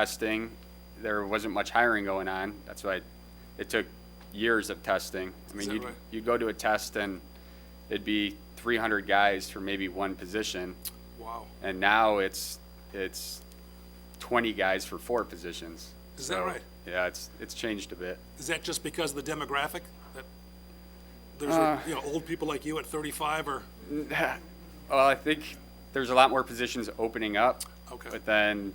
testing. There wasn't much hiring going on. That's why it took years of testing. I Is mean, that you'd, right? you'd go to a test and it'd be 300 guys for maybe one position. Wow. And now it's, it's 20 guys for four positions. Is that So, right? Yeah, it's, it's changed a bit. Is that just because of the demographic? That There's, Uh. you know, old people like you at 35 or, Well, I think there's a lot more positions opening up. Okay. But then,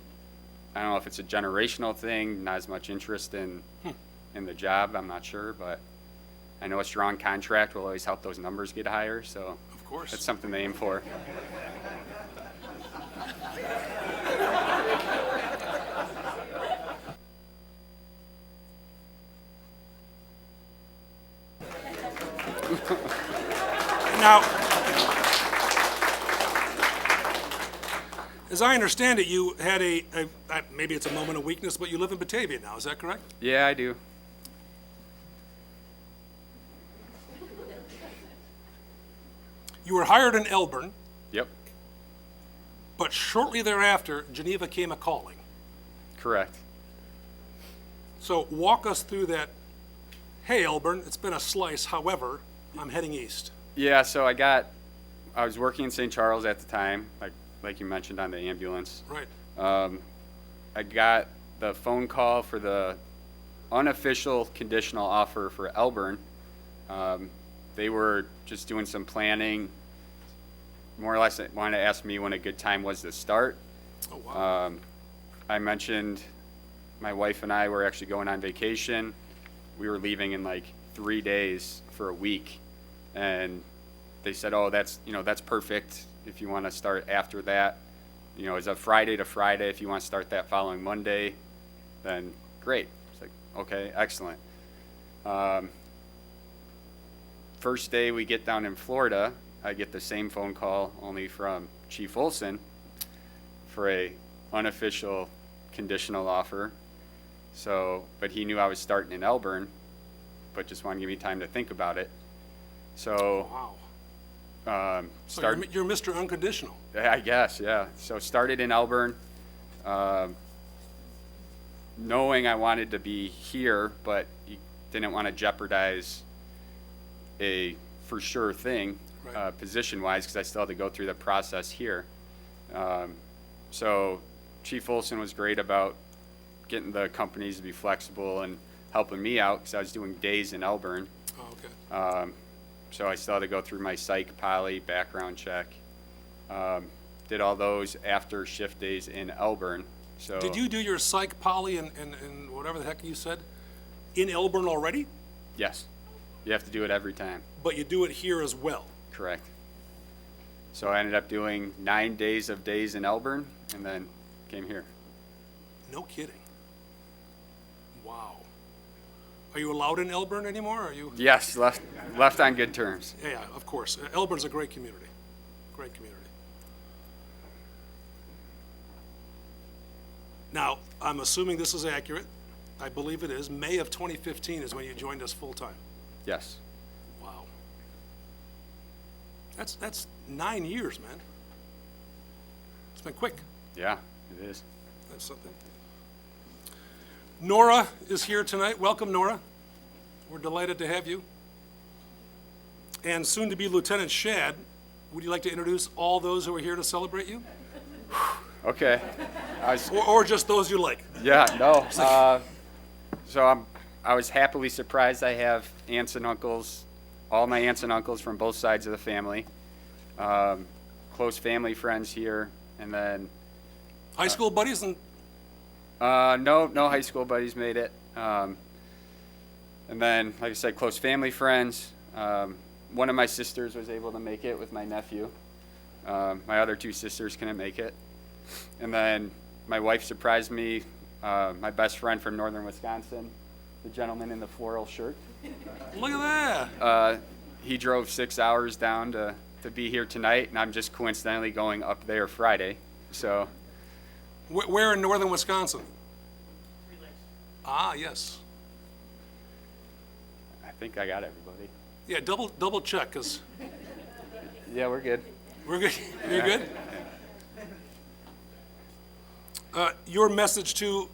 I don't know if it's a generational thing, not as much interest in, in the job, I'm not sure, but I know a strong contract will always help those numbers get higher, so of that's course. something to aim for. Now, as I understand it, you had a, a- I- maybe it's a moment of weakness, but you live in Batavia now, is that correct? Yeah, I do. You were hired in Elburn, Yep, but shortly thereafter, Geneva came a-calling. correct. So walk us through that, hey, Elburn, it's been a slice, however, I'm heading east. Yeah, so I got, I was working in St. Charles at the time, like, like you mentioned on the ambulance. Right, Um, I got the phone call for the unofficial conditional offer for Elburn. Um, they were just doing some planning, more or less they wanted to ask me when a good time was to start. oh, wow, Um, I mentioned my wife and I were actually going on vacation. We were leaving in like three days for a week. And they said, oh, that's, you know, that's perfect if you want to start after that. You know, it's a Friday to Friday. If you want to start that following Monday, then great. It's like, okay, excellent. Um, first day we get down in Florida, I get the same phone call, only from Chief Olson for a unofficial conditional offer. So, but he knew I was starting in Elburn, but just wanted to give me time to think about it. So, wow. um, So you're started. mi- you're Mr. Unconditional. I guess, yeah. So started in Elburn, um, knowing I wanted to be here, but you didn't want to jeopardize a for sure thing, Right. uh, position wise, because I still had to go through the process here. Um, so Chief Olson was great about getting the companies to be flexible and helping me out because I was doing days in Elburn. Oh, okay. Um, so I still had to go through my psych, poly, background check. Um, did all those after shift days in Elburn. So Did you do your psych, poly, and, and, and whatever the heck you said in Elburn already? Yes, you have to do it every time. But you do it here as well. Correct. So I ended up doing nine days of days in Elburn, and then came here. No kidding. Wow. Are you allowed in Elburn anymore? Are you? Yes, left left on good terms. Yeah, yeah, of course. Uh, Elburn's a great community. Great community. Now, I'm assuming this is accurate. I believe it is. May of 2015 is when you joined us full time. Yes. Wow. That's, that's nine years, man. It's been quick. Yeah, it is. That's something. Nora is here tonight. Welcome, Nora. We're delighted to have you. And soon-to-be Lieutenant Shad, would you like to introduce all those who are here to celebrate you? Okay. I was Or, or just those you like? Yeah, no. Uh, so I'm, I was happily surprised. I have aunts and uncles, all my aunts and uncles from both sides of the family, um, close family friends here, and then High school buddies and, uh, no, no high school buddies made it. Um, and then, like I said, close family friends. Um, one of my sisters was able to make it with my nephew. Um, my other two sisters couldn't make it. And then my wife surprised me. Uh, my best friend from northern Wisconsin, the gentleman in the floral shirt, look at that. uh, he drove six hours down to, to be here tonight, and I'm just coincidentally going up there Friday. So, Where, where in northern Wisconsin? Ah, yes. I think I got everybody. Yeah, double, double check, because Yeah, we're good. We're good. You're good? Uh, Your message to